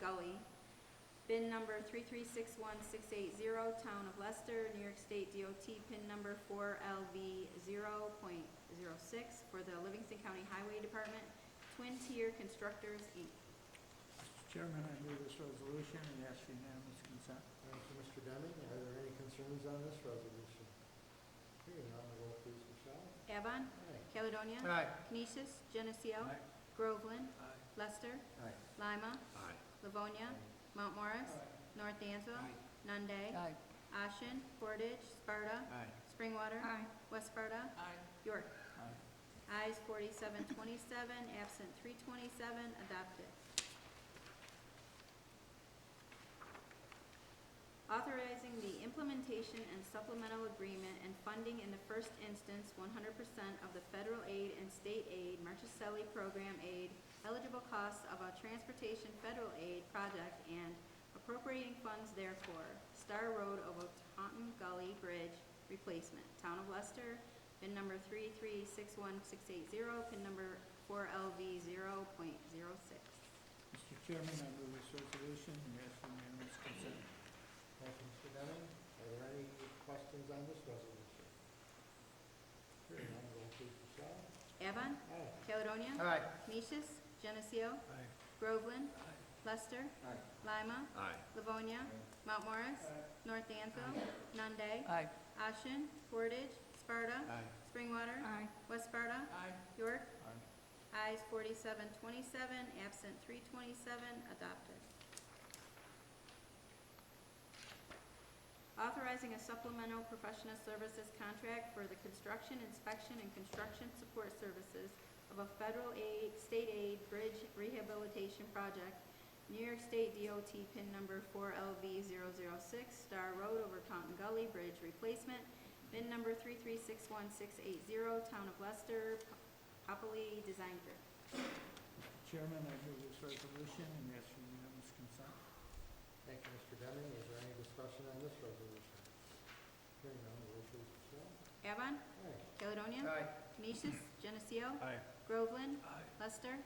Gully. Bin number three three six one six eight zero, Town of Leicester, New York State DOT, pin number four LV zero point zero six for the Livingston County Highway Department, Twin Tier Constructors, Inc. Mr. Chairman, I move this resolution and ask for unanimous consent. Thank you, Mr. Deming. Are there any concerns on this resolution? Hearing none, the roll please, Michelle. Avon, Aye. Caledonia. Aye. Canisius, Geneseo. Aye. Groveland, Aye. Lester, Aye. Lima, Aye. Livonia, Mount Morris, North Dansville, Nunde, Aye. Ashen, Portage, Sparta, Aye. Springwater, Aye. West Sparta, York. Aye. Ayes forty-seven twenty-seven, absent three twenty-seven, adopted. Authorizing the implementation and supplemental agreement and funding in the first instance one hundred percent of the federal aid and state aid, Marchicelli program aid, eligible costs of a transportation federal aid project and appropriating funds therefore. Star Road over Taunton Gully Bridge replacement, Town of Lester, Pin number three three six one six eight zero, pin number four LV zero point zero six. Mr. Chairman, I move this resolution and ask for unanimous consent. Thank you, Mr. Deming. Are there any questions on this resolution? Hearing none, the roll please, Michelle. Avon, Aye. Caledonia. Aye. Canisius, Geneseo, Aye. Groveland. Lester. Aye. Lima, Aye. Livonia. Mount Morris. North Dansville. Nunde. Aye. Ashen. Portage. Sparta. Springwater. Aye. West Sparta. York. Aye. Ayes forty-seven twenty-seven, absent three twenty-seven, adopted. Authorizing a supplemental professional services contract for the construction, inspection, and construction support services of a federal aid, state aid bridge rehabilitation project, New York State DOT pin number four LV 6 Star Road over Taunton Gully Bridge replacement, bin number three three six one six eight zero, Town of Lester, Popoli Design Group. Mr. Chairman, I move this resolution and ask for unanimous consent. Thank you, Mr. Deming. Is there any discussion on this resolution? Hearing none, the roll please, Michelle. Avon, Aye. Caledonia. Uh. Canisius, Geneseo. Aye. Groveland. Lester.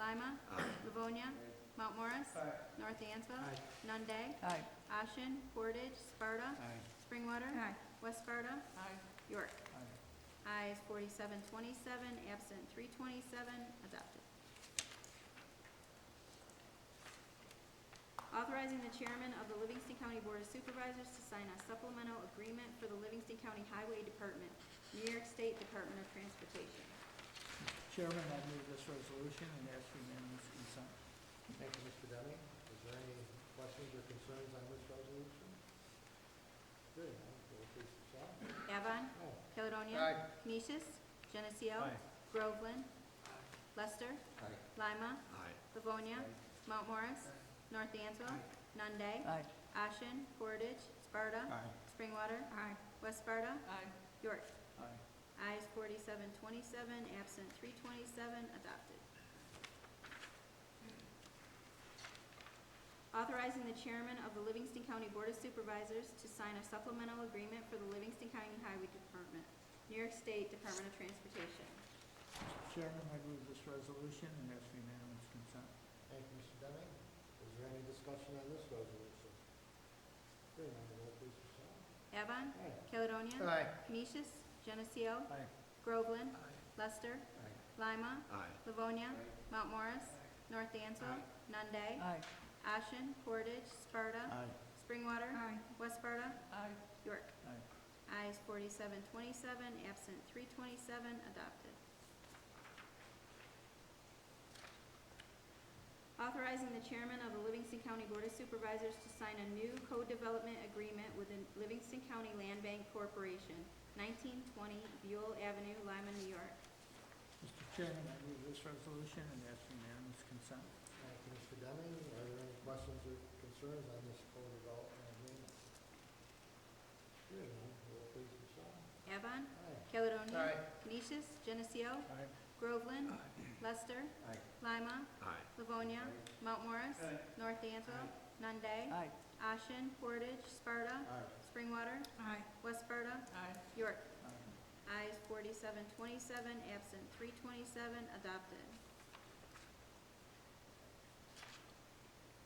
Lima. Aye. Livonia. Mount Morris. Aye. North Dansville. Aye. Nunde. Aye. Ashen, Portage, Sparta. Aye. Springwater. West Sparta. York. Aye. Ayes forty-seven twenty-seven, absent three twenty-seven, adopted. Authorizing the chairman of the Livingston County Board of Supervisors to sign a supplemental agreement for the Livingston County Highway Department, New York State Department of Transportation. Chairman, I move this resolution and ask for unanimous consent. Thank you, Mr. Deming. Is there any questions or concerns on this resolution? Hearing none, the roll please, Michelle. Avon, Aye. Caledonia. Canisius, Geneseo. Aye. Groveland. Lester. Aye. Lima. Aye. Livonia. Mount Morris. North Dansville. Nunde. Aye. Ashen, Portage, Sparta. Aye. Springwater. Aye. West Sparta. York. Aye. Ayes forty-seven twenty-seven, absent three twenty-seven, adopted. Authorizing the chairman of the Livingston County Board of Supervisors to sign a supplemental agreement for the Livingston County Highway Department, New York State Department of Transportation. Mr. Chairman, I move this resolution and ask for unanimous consent. Thank you, Mr. Deming. Is there any discussion on this resolution? Hearing none, the roll please, Michelle. Avon, Aye. Caledonia. Aye. Canisius, Geneseo. Aye. Groveland. Lester. Aye. Lima. Aye. Livonia. Mount Morris. North Dansville. Nunde. Aye. Ashen, Portage, Sparta. Aye. Springwater. West Sparta. Aye. York. Aye. Ayes forty-seven twenty-seven, absent three twenty-seven, adopted. Authorizing the chairman of the Livingston County Board of Supervisors to sign a new co-development agreement with the Livingston County Land Bank Corporation, nineteen twenty Buell Avenue, Lima, New York. Mr. Chairman, I move this resolution and ask for unanimous consent. Thank you, Mr. Deming. Are there any questions or concerns on this co-development agreement? Hearing none, roll please, Michelle. Avon, Aye. Caledonia. Canisius, Geneseo. Aye. Groveland. Lester. Aye. Lima. Aye. Livonia. Mount Morris. North Dansville. Nunde. Aye. Ashen, Portage, Sparta. Aye. Springwater. Aye. West Sparta. Aye. York. Aye. Ayes forty-seven twenty-seven, absent three twenty-seven, adopted.